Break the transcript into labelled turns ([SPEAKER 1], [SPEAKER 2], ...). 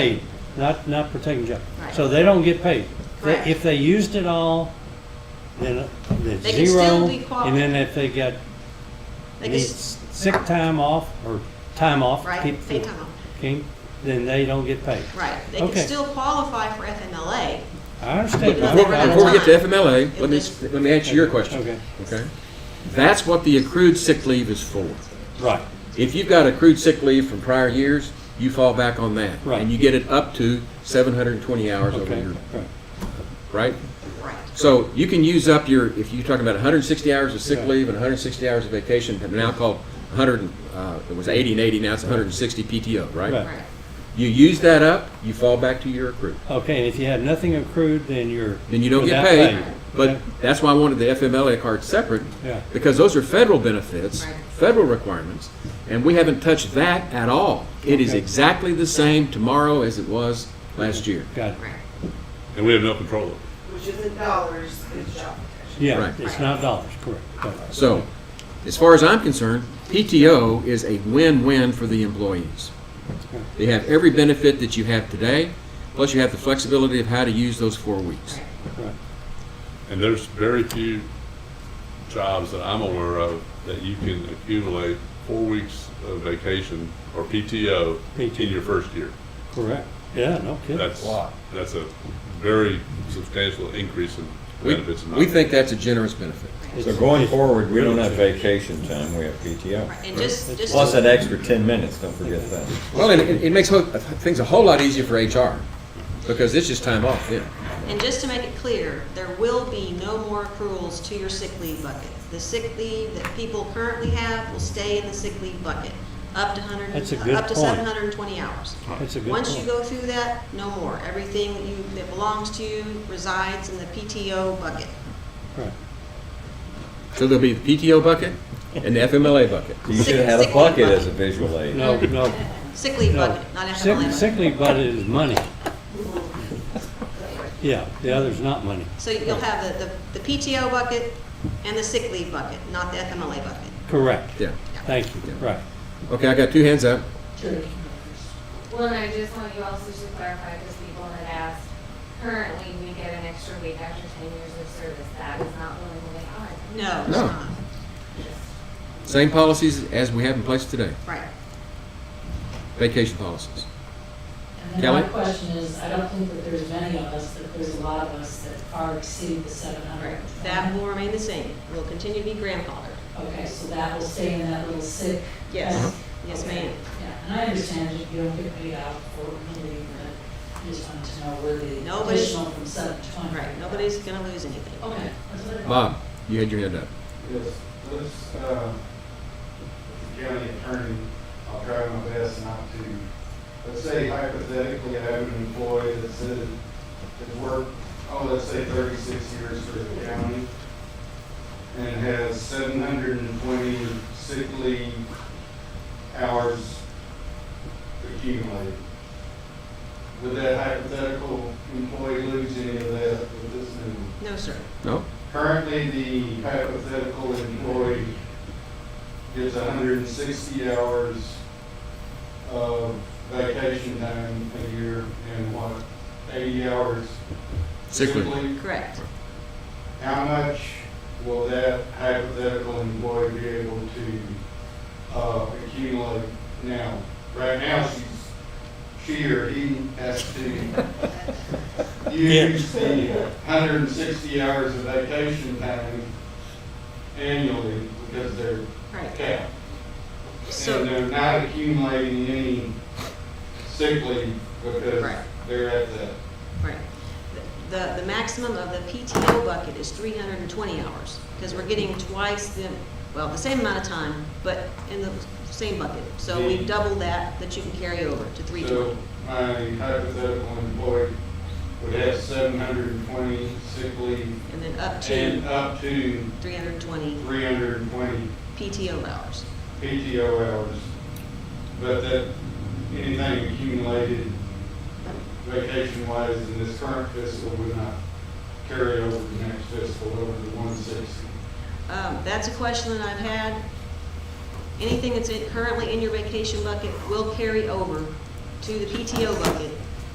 [SPEAKER 1] paid, not, not protecting job.
[SPEAKER 2] Right.
[SPEAKER 1] So they don't get paid. They-
[SPEAKER 2] Correct.
[SPEAKER 1] If they used it all, then, uh, then
[SPEAKER 2] They can
[SPEAKER 1] zero.
[SPEAKER 2] still be qualified.
[SPEAKER 1] And then if they got,
[SPEAKER 2] They can
[SPEAKER 1] need
[SPEAKER 2] s-
[SPEAKER 1] sick time off or time off.
[SPEAKER 2] Right,
[SPEAKER 1] keep-
[SPEAKER 2] sick time off.
[SPEAKER 1] okay, Then they don't get paid.
[SPEAKER 2] Right, they can
[SPEAKER 1] Okay.
[SPEAKER 2] still qualify for FMLA.
[SPEAKER 1] I understand.
[SPEAKER 2] Because
[SPEAKER 1] I'm-
[SPEAKER 2] they were
[SPEAKER 1] I'm-
[SPEAKER 2] gonna
[SPEAKER 3] Before we get to
[SPEAKER 2] time.
[SPEAKER 3] FMLA, let me,
[SPEAKER 2] If
[SPEAKER 3] let me answer your question.
[SPEAKER 1] Okay,
[SPEAKER 3] Okay? That's what the accrued sick leave is for.
[SPEAKER 1] right,
[SPEAKER 3] If you've got accrued sick leave from prior years, you fall back on that.
[SPEAKER 1] Right.
[SPEAKER 3] And you get it up to seven hundred and twenty hours over
[SPEAKER 1] okay,
[SPEAKER 3] your,
[SPEAKER 1] right.
[SPEAKER 3] right?
[SPEAKER 2] Right,
[SPEAKER 3] So you can use up your, if you're talking about hundred and sixty hours of sick
[SPEAKER 1] Yeah.
[SPEAKER 3] leave and hundred and sixty hours of vacation, they're now called hundred, uh, it was eighty and eighty, now it's hundred and sixty PTO,
[SPEAKER 1] Right.
[SPEAKER 3] right?
[SPEAKER 2] right,
[SPEAKER 3] You use that up, you fall back to your accrued.
[SPEAKER 1] Okay, and if you have nothing accrued, then you're.
[SPEAKER 3] then you don't get
[SPEAKER 1] without
[SPEAKER 3] paid.
[SPEAKER 1] Okay.
[SPEAKER 3] But that's why I wanted the FMLA card separate,
[SPEAKER 1] Yeah.
[SPEAKER 3] because those are federal benefits,
[SPEAKER 2] Right.
[SPEAKER 3] federal requirements, and we haven't touched that at all. It is
[SPEAKER 1] Okay.
[SPEAKER 3] exactly the same tomorrow as it was last year.
[SPEAKER 1] Got it.
[SPEAKER 2] right.
[SPEAKER 4] And we have no control of it.
[SPEAKER 5] which is in dollars, is job protection.
[SPEAKER 1] Yeah,
[SPEAKER 3] Right.
[SPEAKER 1] it's not dollars, correct. Got it.
[SPEAKER 3] So, as far as I'm concerned, PTO is a win-win for the employees. They have every benefit that you have today, plus you have the flexibility of how to use those four weeks.
[SPEAKER 2] right.
[SPEAKER 1] Right.
[SPEAKER 4] And there's very few jobs that I'm aware of that you can accumulate four weeks of vacation or PTO
[SPEAKER 1] PTO.
[SPEAKER 4] in your first year.
[SPEAKER 1] Correct, yeah, no kidding.
[SPEAKER 4] That's, that's a very substantial increase in
[SPEAKER 3] We,
[SPEAKER 4] benefits. and
[SPEAKER 3] we
[SPEAKER 4] not-
[SPEAKER 3] think that's a generous benefit.
[SPEAKER 6] So going forward, we don't have vacation time, we have PTO.
[SPEAKER 2] Right, and just, just,
[SPEAKER 6] Plus
[SPEAKER 2] to-
[SPEAKER 6] that extra 10 minutes, don't forget that.
[SPEAKER 3] Well, and it, it makes ho- things a whole lot easier for HR because it's just time off then.
[SPEAKER 2] and just to make it clear, there will be no more accruals to your sick leave bucket. The sick leave that people currently have will stay in the sick leave bucket, up to hundred,
[SPEAKER 1] That's a good
[SPEAKER 2] up to
[SPEAKER 1] point.
[SPEAKER 2] seven hundred and twenty hours.
[SPEAKER 1] That's a good
[SPEAKER 2] Once you
[SPEAKER 1] point.
[SPEAKER 2] go through that, no more. Everything that you, that belongs to you resides in the PTO bucket.
[SPEAKER 1] Right.
[SPEAKER 3] So there'll be the PTO bucket and the FMLA bucket.
[SPEAKER 6] You should have had a bucket as a visual aid.
[SPEAKER 1] No, no,
[SPEAKER 2] Sick leave
[SPEAKER 1] No.
[SPEAKER 2] bucket, not
[SPEAKER 1] Sick-
[SPEAKER 2] FMLA bucket.
[SPEAKER 1] Sick leave budget is money. Yeah, the other's not money.
[SPEAKER 2] So you'll have the, the- the PTO bucket and the sick leave bucket, not the FMLA bucket.
[SPEAKER 1] Correct.
[SPEAKER 3] Yeah.
[SPEAKER 1] Thank you, right.
[SPEAKER 3] Okay, I got two hands up.
[SPEAKER 7] Well, and I just want you also to clarify, because people had asked, currently, we get an extra week after ten years of service, that is not willingly honored.
[SPEAKER 2] No, it's
[SPEAKER 3] No.
[SPEAKER 2] not.
[SPEAKER 3] Same policies as we have in place today,
[SPEAKER 2] Right.
[SPEAKER 3] vacation policies.
[SPEAKER 8] And then my
[SPEAKER 3] Kelly?
[SPEAKER 8] question is, I don't think that there's many of us, but there's a lot of us that far exceed the seven hundred.
[SPEAKER 2] That will remain the same. We'll continue to be grandfathered.
[SPEAKER 8] Okay, so that will stay in that little sick.
[SPEAKER 2] Yes.
[SPEAKER 8] bank.
[SPEAKER 2] Yes,
[SPEAKER 8] Okay.
[SPEAKER 2] ma'am.
[SPEAKER 8] Yeah, and I understand that you don't get paid out for leave, but I just wanted to know where the
[SPEAKER 2] Nobody's-
[SPEAKER 8] additional from seven twenty.
[SPEAKER 2] Right. Nobody's gonna lose anything.
[SPEAKER 8] Okay, that's what I thought.
[SPEAKER 3] Bob, you had your hand up.
[SPEAKER 9] Yes, let's, uh, county attorney, I'll try my best not to, let's say hypothetically, I have an employee that said that worked, oh, let's say thirty-six years for the county, and has seven hundred and twenty sick leave hours accumulated. Would that hypothetical employee lose any of that with this new?
[SPEAKER 2] No, sir.
[SPEAKER 3] No?
[SPEAKER 9] Currently, the hypothetical employee gets hundred and sixty hours of vacation time a year and what, eighty hours?
[SPEAKER 3] Sick leave.
[SPEAKER 2] Correct.
[SPEAKER 9] How much will that hypothetical employee be able to, uh, accumulate now? Right now, she's, she or he has to use the hundred and sixty hours of vacation time annually because they're
[SPEAKER 2] Right.
[SPEAKER 9] capped. And
[SPEAKER 2] So,
[SPEAKER 9] they're not accumulating any sick leave because
[SPEAKER 2] Right.
[SPEAKER 9] they're at that.
[SPEAKER 2] right. The, the maximum of the PTO bucket is three hundred and twenty hours, because we're getting twice the, well, the same amount of time, but in the same bucket. So we
[SPEAKER 9] The-
[SPEAKER 2] double that, that you can carry over to three
[SPEAKER 9] Mm. So
[SPEAKER 2] twenty.
[SPEAKER 9] my hypothetical employee would have seven hundred and twenty sick leave
[SPEAKER 2] And then up
[SPEAKER 9] and uh,
[SPEAKER 2] to
[SPEAKER 9] up to
[SPEAKER 2] three hundred and twenty
[SPEAKER 9] three hundred and twenty
[SPEAKER 2] PTO hours.
[SPEAKER 9] PTO hours. But that, anything accumulated vacation wise in this current fiscal would not carry over the next fiscal over the one sixty.
[SPEAKER 2] Um, That's a question that I've had. Anything that's in- currently in your vacation bucket will carry over to the PTO bucket